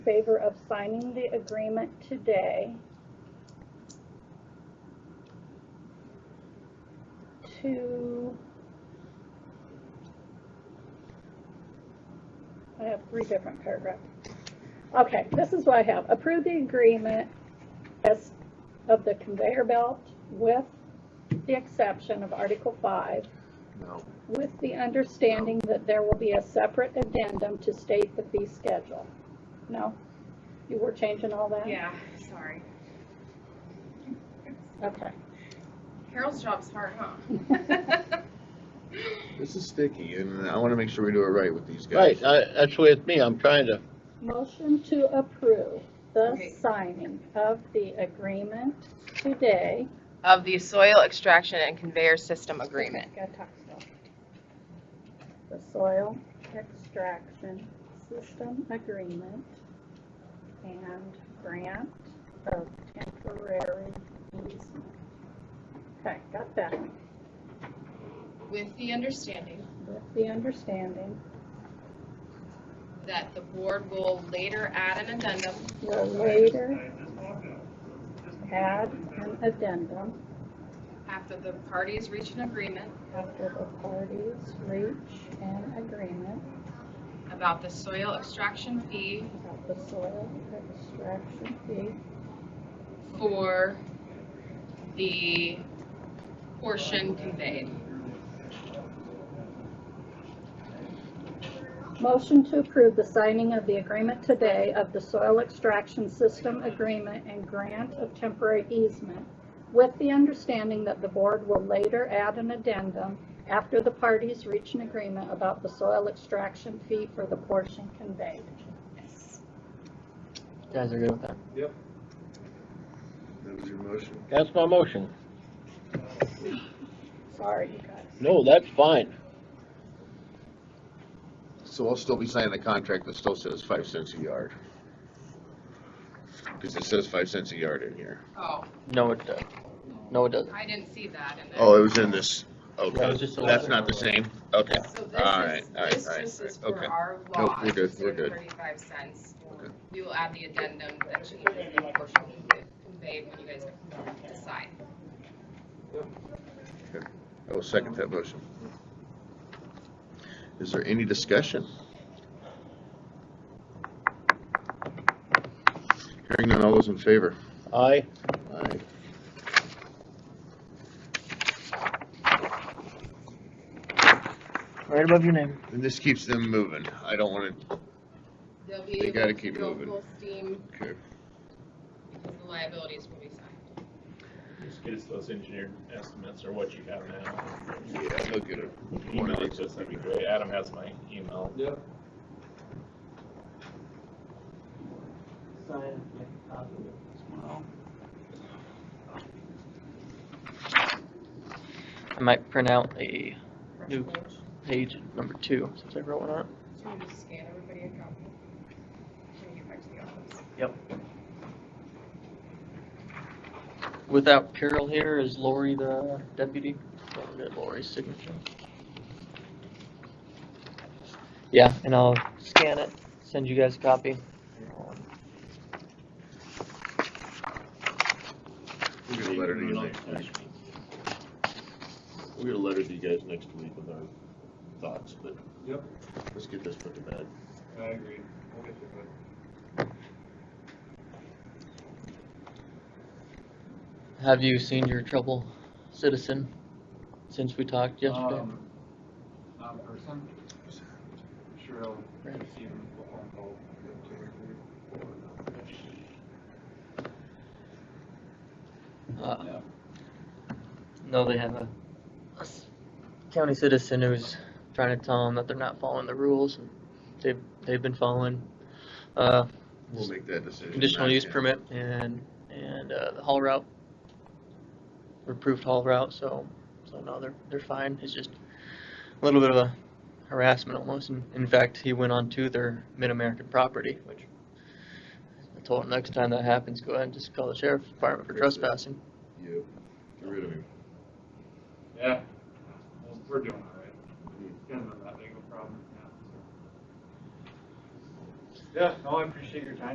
favor of signing the agreement today to, I have three different paragraphs. Okay, this is what I have. Approve the agreement as of the conveyor belt with the exception of Article 5 No, with the understanding that there will be a separate addendum to state the fee schedule. No? You were changing all that? Yeah, sorry. Okay. Carol's job's hard, huh? this is sticky and I wanna make sure we do it right with these guys. Right, I, that's the way it's me, I'm trying to, Motion to approve Okay. the signing of the agreement today. of the soil extraction and conveyor system agreement. Gotta talk slow. The soil extraction system agreement and grant of temporary easement. Okay, got that. With the understanding With the understanding, that the board will later add an addendum will later add an addendum after the parties reach an agreement after the parties reach an agreement about the soil extraction fee about the soil extraction fee for the portion conveyed. Motion to approve the signing of the agreement today of the soil extraction system agreement and grant of temporary easement with the understanding that the board will later add an addendum after the parties reach an agreement about the soil extraction fee for the portion conveyed. You guys are good with that? That was your motion. that's my motion. Sorry, you guys. No, that's fine. So I'll still be signing a contract that still says five cents a yard. Cause it says five cents a yard in here. Oh, No, it doesn't. No, it doesn't. I didn't see that in there. Oh, it was in this, That okay, was just a that's letter. not the same, okay. So Alright, this alright, is, this alright, just is alright, for okay. our Nope, law, we're good, it's we're for good. thirty-five cents. Okay. We will add the addendum that changes the portion conveyed when you guys decide. I will second that motion. Is there any discussion? Hearing none, all those in favor? I, Aye. Right above your name. And this keeps them moving, I don't wanna, They'll be They able gotta to keep go moving. Full steam okay, because the liabilities will be signed. Just get us those engineered estimates or what you have now. yeah, they'll get it. Email it to us, that'd be great. Adam has my email. Yep. I might print out a Fresh New. quotes. page number two since I wrote one up. So you just scan everybody a copy. When you get back to the office. Without Carol here, is Lori the deputy? Don't get Lori's signature. Yeah, and I'll scan it, send you guys a copy. We'll get a letter to you later. We'll get a letter to you guys next week with our thoughts, but. Yep. Let's get this put to bed. I agree. We'll get to it. Have you seen your trouble citizen since we talked yesterday? Um, Not in person. Sure, I'll Right. see him the phone call. get to it. Uh, yeah. No, they have a, a s- county citizen who's trying to tell them that they're not following the rules. and They've, they've been following, uh, We'll make that decision. conditional not use yet. permit and, and, uh, the haul route. Approved haul route, so, so no, they're, they're fine, it's just a little bit of a harassment almost, and in fact, he went on to their mid-American property, which I told him next time that happens, go ahead and just call the sheriff's department for Fix it. trespassing. Yep, get rid of him. Yeah, Well, we're doing all right. Kind of not that big of a problem now. so. Yeah, no, I appreciate your time.